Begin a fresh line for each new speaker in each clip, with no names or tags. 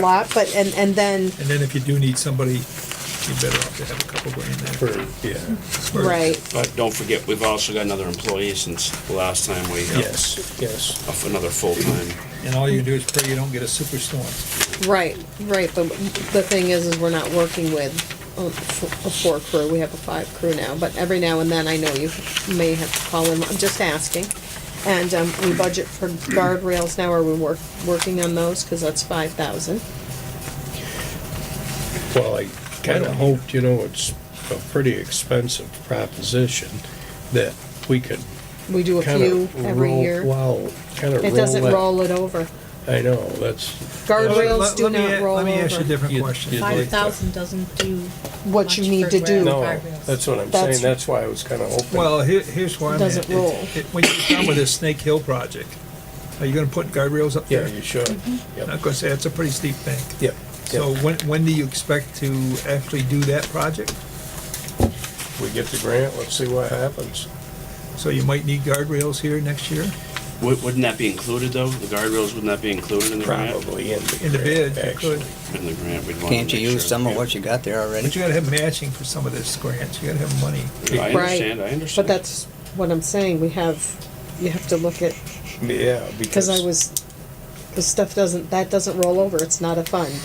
lot, but, and, and then,
And then if you do need somebody, you're better off to have a couple grand there.
yeah.
Spurs.
right,
But don't forget, we've also got another employee since the last time we,
Yes, yes.
of another full-time.
And all you do is pray you don't get a superstorm.
right, right, but the thing is, is we're not working with a f- a four crew, we have a five crew now, but every now and then, I know you may have to call in, I'm just asking. And, um, we budget for guardrails now, are we work, working on those, cause that's five thousand,
Well, I kind of hoped, you know, it's a pretty expensive proposition that we could
we do a
kind
few
of
every
roll,
year.
well, kind of roll
It doesn't
that-
roll it over,
I know, that's,
guardrails
Let-
do
let me
not
a-
roll over.
Let me ask you a different
You-
question.
you-
Five thousand doesn't do.
What you
much
need
for
to
road
do.
no,
guardrails.
that's what I'm
That's-
saying, that's why I was kind of hoping.
Well, here, here's why I'm at.
Doesn't
It-
roll.
it- When you're done with this Snake Hill project, are you gonna put guardrails up
Yeah,
there?
you should,
Mm-hmm.
I'm
yep,
gonna say, that's a pretty steep bank.
yep.
So when, when do you expect to actually do that project?
We get the grant, let's see what happens.
Mm-hmm. So you might need guardrails here next year?
Wou- Wouldn't that be included, though? The guardrails, wouldn't that be included in the grant?
Probably in the
In the
grant,
bid, you
actually.
could.
In the grant, we'd want to
Can't you
make
use
sure.
some of what you got there
But you
already?
gotta have matching for some of this grants, you gotta have money.
I understand, I
But
understand.
that's what I'm saying, we have, you have to look at,
Yeah, because.
because I was, the stuff doesn't, that doesn't roll over, it's not a fund.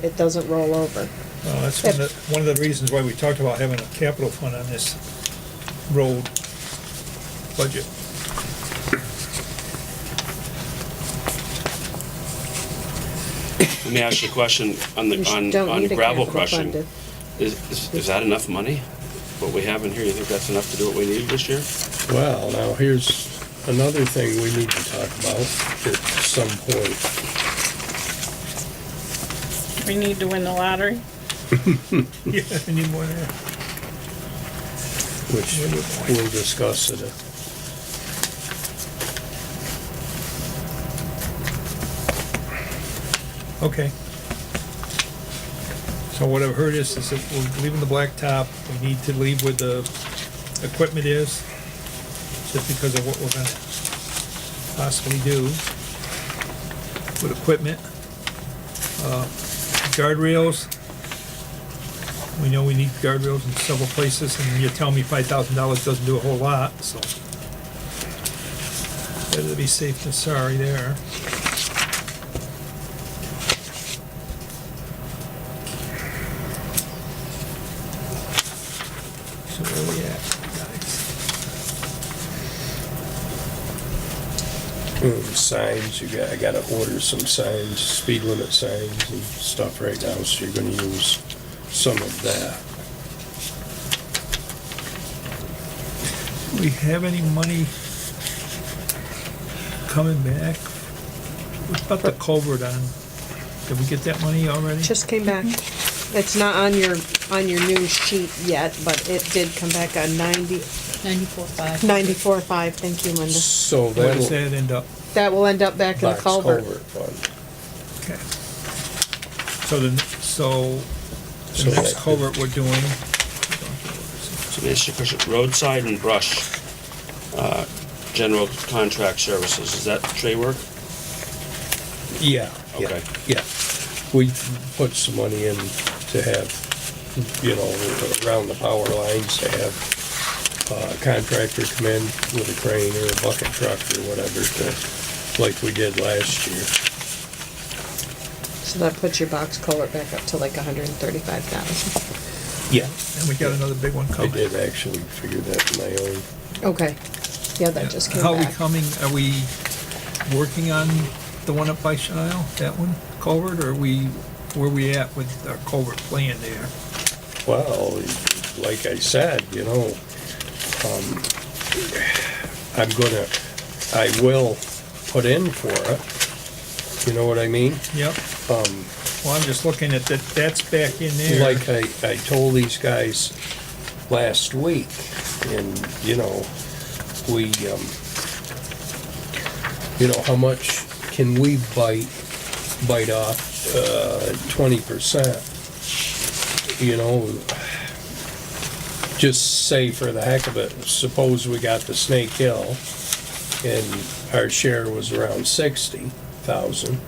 It doesn't roll over.
Well, Uh, that's one of, the- one of the reasons why we talked about having a capital fund on this road budget.
Let me ask you a question on
You
the,
sh-
on,
don't
on
need a
gravel
capital
crushing.
fund
Is, is- is that enough money? What we have in here, you think that's enough to do what we need this year?
Well, now here's another thing we need to talk about at some point.
We need to win the lottery.
Yeah, I need more there.
which we'll discuss it.
Okay. So what I've heard is, is that we're leaving the blacktop, we need to leave where the equipment is, just because of what we're gonna possibly do with equipment. Uh, Guardrails, we know we need guardrails in several places, and you're telling me five thousand dollars doesn't do a whole lot, so. Better to be safe than sorry there. So where we at, guys?
Um, Signs, you got, I gotta order some signs, speed limit signs and stuff right now, so you're gonna use some of that.
Do we have any money coming back? What about the culvert on? Did we get that money already?
Just came back. It's not on your, on your new sheet yet, but it did come back on ninety,
Ninety-four five.
ninety-four five, thank you, Linda.
So
Where does
that'll.
that end up?
That will end up back in the
Box
culvert.
culvert fund.
Okay. So the, so
So
the next
that-
culvert we're doing,
So let me ask you a question. Roadside and brush, uh, general contract services, is that tree work?
Yeah, yeah,
Okay.
yeah. We put some money in to have, you know, around the power lines to have uh, contractor come in with a crane or a bucket truck or whatever to, like we did last year.
So that puts your box culvert back up to like a hundred and thirty-five thousand.
Yeah.
and we got another big one
I
coming.
did actually figure that in my own.
Okay, yeah, that just came
How are we
back.
coming, are we working on the one up by Shile, that one, culvert, or are we, where we at with our culvert plan there?
Well, like I said, you know, um, I'm gonna, I will put in for it. You know what I mean?
Yep. Well, I'm just looking at that, that's back in there.
Like I, I told these guys last week, and, you know, we, um, you know, how much can we bite, bite off, uh, twenty percent? You know, just say for the heck of it, suppose we got the Snake Hill and our share was around sixty thousand.